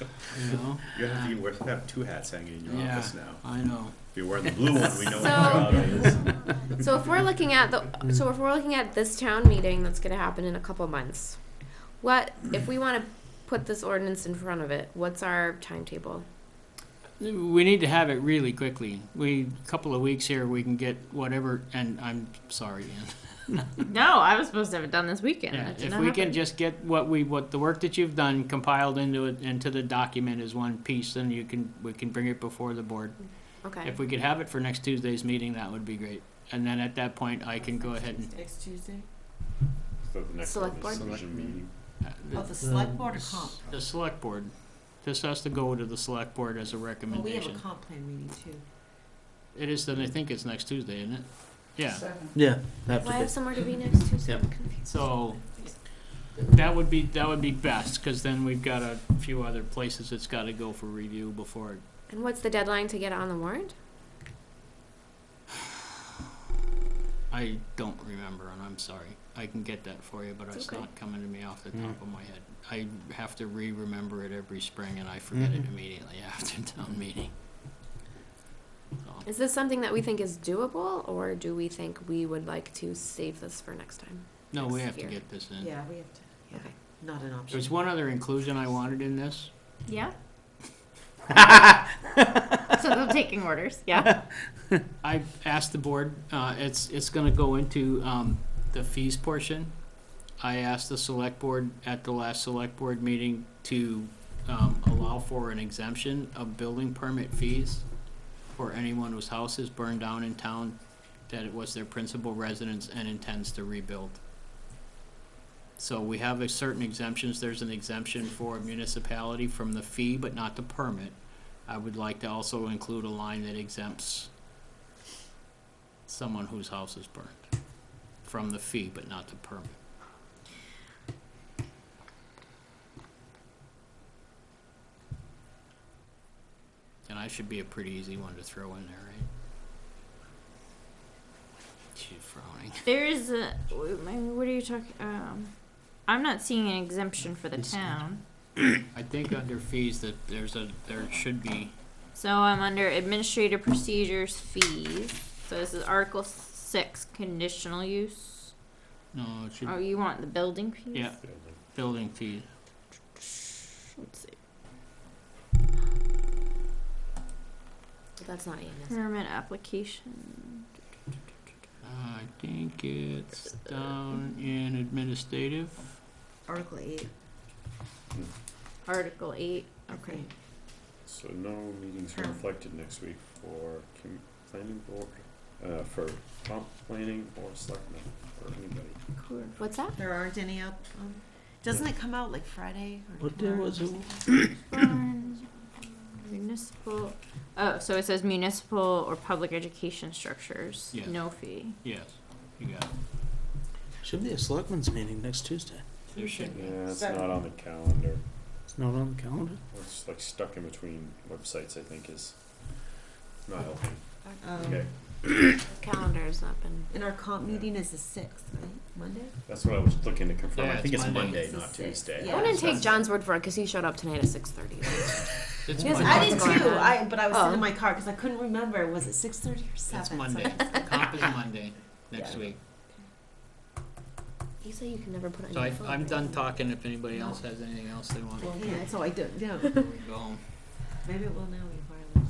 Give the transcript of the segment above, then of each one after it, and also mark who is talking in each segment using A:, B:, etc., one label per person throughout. A: you know?
B: You're gonna have
C: Um,
B: to wear, have two hats hanging in your
A: Yeah,
B: office now.
A: I know.
B: If you're wearing the blue one, we know
D: So-
B: what job it is.
D: So if we're looking at the, so if we're looking at this town meeting that's gonna happen in a couple months, what, if we wanna put this ordinance in front of it, what's our timetable?
A: We need to have it really quickly. We, couple of weeks here, we can get whatever, and I'm sorry, Ann.
E: No, I was supposed to have it done this weekend.
A: Yeah,
E: That did
A: if
E: not
A: we can
E: happen.
A: just get what we, what the work that you've done compiled into it, into the document as one piece, then you can, we can bring it before the board.
D: Okay,
A: If we could have it for next Tuesday's meeting, that would be great. And then at that point, I can go ahead and,
F: Next Tuesday?
B: So the next
D: Select
B: one is
D: board?
B: decision meeting.
A: uh,
F: Oh,
A: the,
F: the select board or comp?
A: the select board. This has to go to the select board as a
F: Well, we have a
A: recommendation.
F: comp plan meeting too.
A: It is, then I think it's next Tuesday, isn't it? Yeah,
C: Yeah, that
D: do I
C: would
D: have somewhere to be next Tuesday?
C: Yep.
D: I'm confused.
A: so, that would be, that would be best, cause then we've got a few other places it's gotta go for review before it
D: And what's the deadline to get it on the warrant?
A: I don't remember, and I'm sorry. I can get that for you, but
D: It's
A: it's
D: okay.
A: not coming to me off the
C: Mm.
A: top of my head. I have to re-remember it every spring, and I forget it immediately after town meeting. So,
D: Is this something that we think is doable, or do we think we would like to save this for next time?
A: no, we
D: Next
A: have to
D: year.
A: get this in.
F: Yeah, we have to, yeah,
D: Okay.
F: not an option.
A: There's one other inclusion I wanted in this.
E: Yeah. so they're taking orders. Yeah.
A: I asked the board, uh, it's, it's gonna go into, um, the fees portion. I asked the select board at the last select board meeting to, um, allow for an exemption of building permit fees for anyone whose house is burned down in town, that it was their principal residence and intends to rebuild. So we have a certain exemptions, there's an exemption for a municipality from the fee, but not the permit. I would like to also include a line that exempts someone whose house is burned from the fee, but not the permit. And I should be a pretty easy one to throw in there, right? She's frowning.
E: There's a. wait, my- What are you talking? Um, I'm not seeing an exemption for the
A: It's-
E: town.
A: I think under fees that there's a, there should be,
E: So I'm under administrative procedures fees. So this is Article Six, conditional use.
A: no, it should,
E: Oh, you want the building piece?
A: yeah, building fee.
E: Let's see.
D: But That's not EMS.
E: Permit application.
A: I think it's down in administrative.
F: Article eight,
E: Article Eight.
F: okay.
B: So no meetings are reflected next week for com- planning board, uh, for comp planning or selectmen or anybody.
F: Cool.
D: What's that?
F: There aren't any out, um, doesn't it come out like Friday or
C: What day
F: tomorrow
C: was
F: or
C: it?
F: something?
E: Burn, Municipal, oh, so it says municipal or public education structures,
A: Yeah.
E: no fee.
A: Yes, you got it.
C: Should be a selectmen's meeting next Tuesday.
A: There should be.
B: Yeah, it's
F: Seven.
B: not on the calendar.
C: It's not on the calendar.
B: We're just like stuck in between websites, I think is not helping.
F: Um,
B: Okay,
D: Calendar's not been.
F: And our comp
B: Yeah.
F: meeting is the sixth, right, Monday?
B: that's what I was looking to confirm.
A: Yeah,
B: I
A: it's
B: think it's
A: Monday.
B: Monday,
F: It's the
B: not
F: sixth,
B: Tuesday.
D: I
F: yeah.
D: wouldn't take John's word for it, cause he showed up tonight at six thirty.
A: It's
D: Yes,
A: Monday.
D: I did What's going too. on?
F: I, but I was sitting
D: Oh.
F: in my car because I couldn't remember, was it six thirty or seven?
A: It's
F: So I
A: Monday.
F: just-
A: Comp is Monday next
F: Yeah.
A: week.
D: You say you can never put it on
A: So
D: your
A: I,
D: phone.
A: I'm done talking. If anybody else has anything else they want,
F: Well, yeah, so I don't, yeah,
A: we go home.
F: maybe it will now be wireless.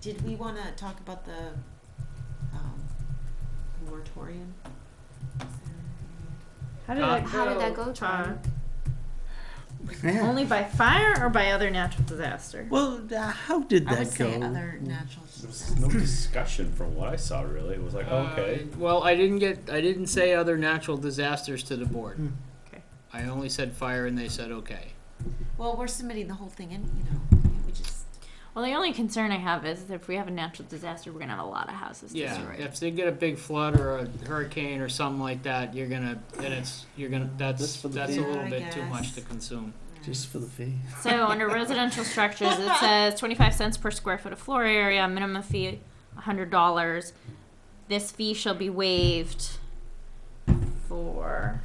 F: Did we wanna talk about the, um, moratorium?
E: How
A: did that
D: How did that go, John?
C: Yeah.
E: Only by fire or by other natural disaster?
C: Well, uh, how did
F: I would
C: that
F: say
C: go?
F: other natural
B: There was no discussion from what I saw really. It was like, okay.
A: Uh, Well, I didn't get, I didn't say other natural disasters to the board.
C: Hmm.
E: Okay.
A: I only said fire and they said okay.
F: Well, we're submitting the whole thing in, you know, we just,
E: Well, the only concern I have is if we have a natural disaster, we're gonna have a lot of houses
A: Yeah,
E: destroyed.
A: if they get a big flood or a hurricane or something like that, you're gonna, then it's, you're gonna,
C: That's
A: that's,
C: for the
A: that's a
C: fee.
A: little
F: Yeah, I
A: bit too much
F: guess.
A: to consume.
C: Just for the fee.
E: So under residential structures, it says twenty-five cents per square foot of floor area, minimum fee hundred dollars. This fee shall be waived for